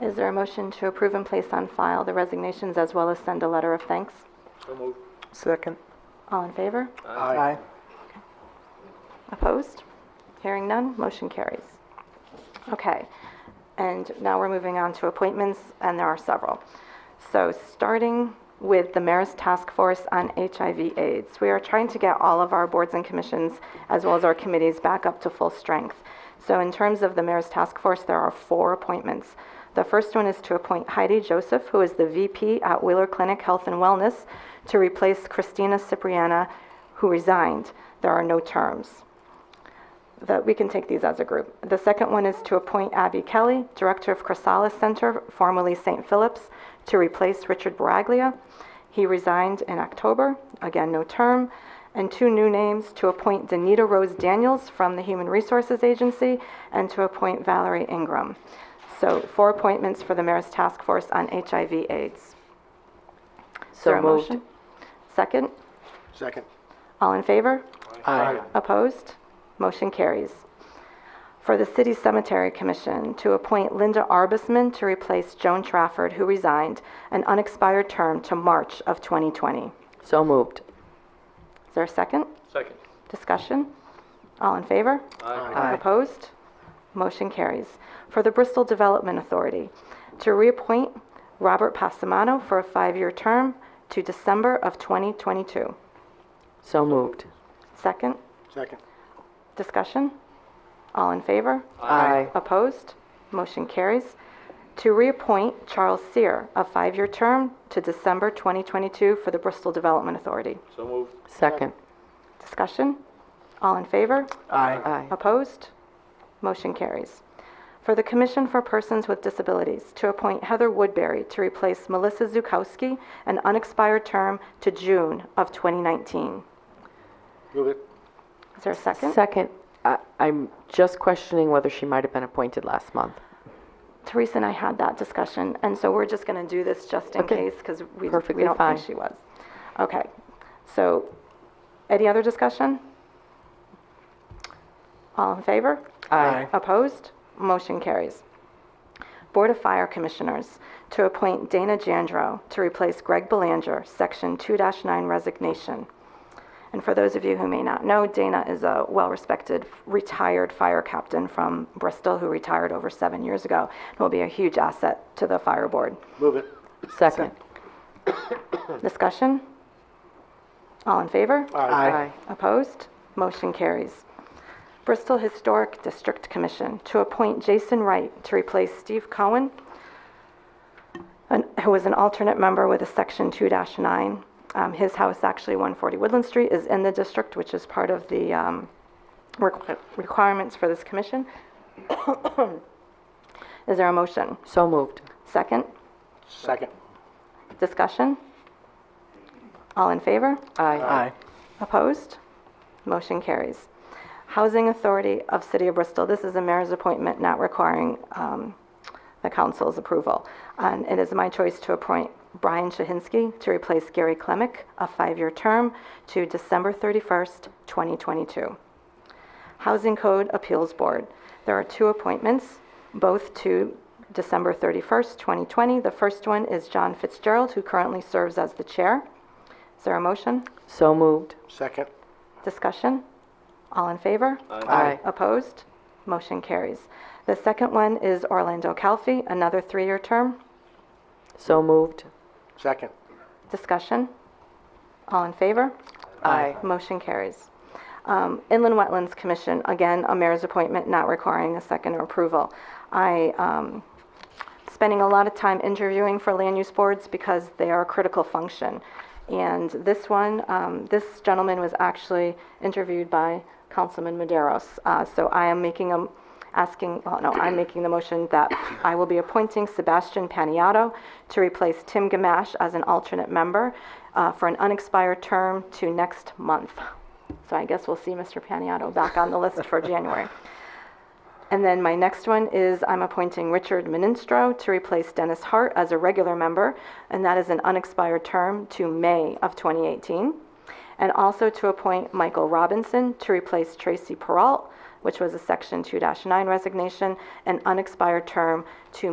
Is there a motion to approve and place on file the resignations as well as send a letter of thanks? So moved. Second. All in favor? Aye. Opposed? Hearing none, motion carries. Okay, and now we're moving on to appointments, and there are several. So, starting with the Mayor's Task Force on HIV/AIDS, we are trying to get all of our boards and commissions, as well as our committees, back up to full strength. So, in terms of the Mayor's Task Force, there are four appointments. The first one is to appoint Heidi Joseph, who is the VP at Wheeler Clinic Health and Wellness, to replace Christina Cipriana, who resigned. There are no terms that we can take these as a group. The second one is to appoint Abby Kelly, Director of Chrysalis Center, formerly St. Philip's, to replace Richard Baraglia. He resigned in October, again, no term. And two new names, to appoint Danita Rose Daniels from the Human Resources Agency and to appoint Valerie Ingram. So four appointments for the Mayor's Task Force on HIV/AIDS. Is there So a moved. motion? Second? Second. All in favor? Aye. Opposed? Motion carries. For the City Cemetery Commission, to appoint Linda Arbisman to replace Joan Trafford, who resigned, an unexpired term to March of 2020. Is So moved. there a second? Second. Discussion? All in favor? Aye. Opposed? Motion carries. For the Bristol Development Authority, to reappoint Robert Passamano for a five-year term to December of 2022. So moved. Second? Second. Discussion? All in favor? Aye. Opposed? Motion carries. To reappoint Charles Seer, a five-year term to December 2022 for the Bristol Development Authority. So moved. Second. Discussion? All in favor? Aye. Opposed? Motion carries. For the Commission for Persons with Disabilities, to appoint Heather Woodbury to replace Melissa Zukowski, an unexpired term to June of 2019. Move it. Is there a second? Second, I- I'm just questioning whether she might have been appointed last month. Teresa and I had that discussion, and so we're just going to do this just in Okay. case, because we we Perfectly don't fine. think she was. Okay, so, any other discussion? All in favor? Aye. Opposed? Motion carries. Board of Fire Commissioners, to appoint Dana Jandro to replace Greg Belanger, Section 2-9 resignation. And for those of you who may not know, Dana is a well respected retired fire captain from Bristol who retired over seven years ago and will be a huge asset to the fire board. Move it. Second. Discussion? All in favor? Aye. Opposed? Motion carries. Bristol Historic District Commission to appoint Jason Wright to replace Steve Cohen, an- who is an alternate member with a Section 2-9. Um, His house, actually 140 Woodland Street, is in the district, which is part of the um, requ- requirements for this commission. Is there a motion? So moved. Second? Second. Discussion? All in favor? Aye. Aye. Opposed? Motion carries. Housing Authority of City of Bristol, this is a mayor's appointment not requiring um, the council's approval. And it is my choice to appoint Brian Shahinsky to replace Gary Klemick, a five-year term to December 31st, 2022. Housing Code Appeals Board. There are two appointments, both to December 31st, 2020. The first one is John Fitzgerald, who currently serves as the chair. Is there a motion? So moved. Second. Discussion? All in favor? Aye. Opposed? Motion carries. The second one is Orlando Calfi, another three-year term. So moved. Second. Discussion? All in favor? Aye. Motion carries. Um, Inland Wetlands Commission, again, a mayor's appointment not requiring a second approval. I, um, spending a lot of time interviewing for land use boards because they are a critical function. And this one, um, this gentleman was actually interviewed by Councilman Maderos. Uh, so I am making a, asking, well, no, I'm making the motion that I will be appointing Sebastian Paniato to replace Tim Gamache as an alternate member uh, for an unexpired term to next month. So I guess we'll see Mr. Paniato back on the list for January. And then my next one is I'm appointing Richard Ministro to replace Dennis Hart as a regular member, and that is an unexpired term to May of 2018. And also to appoint Michael Robinson to replace Tracy Peralt, which was a Section 2-9 resignation, an unexpired term to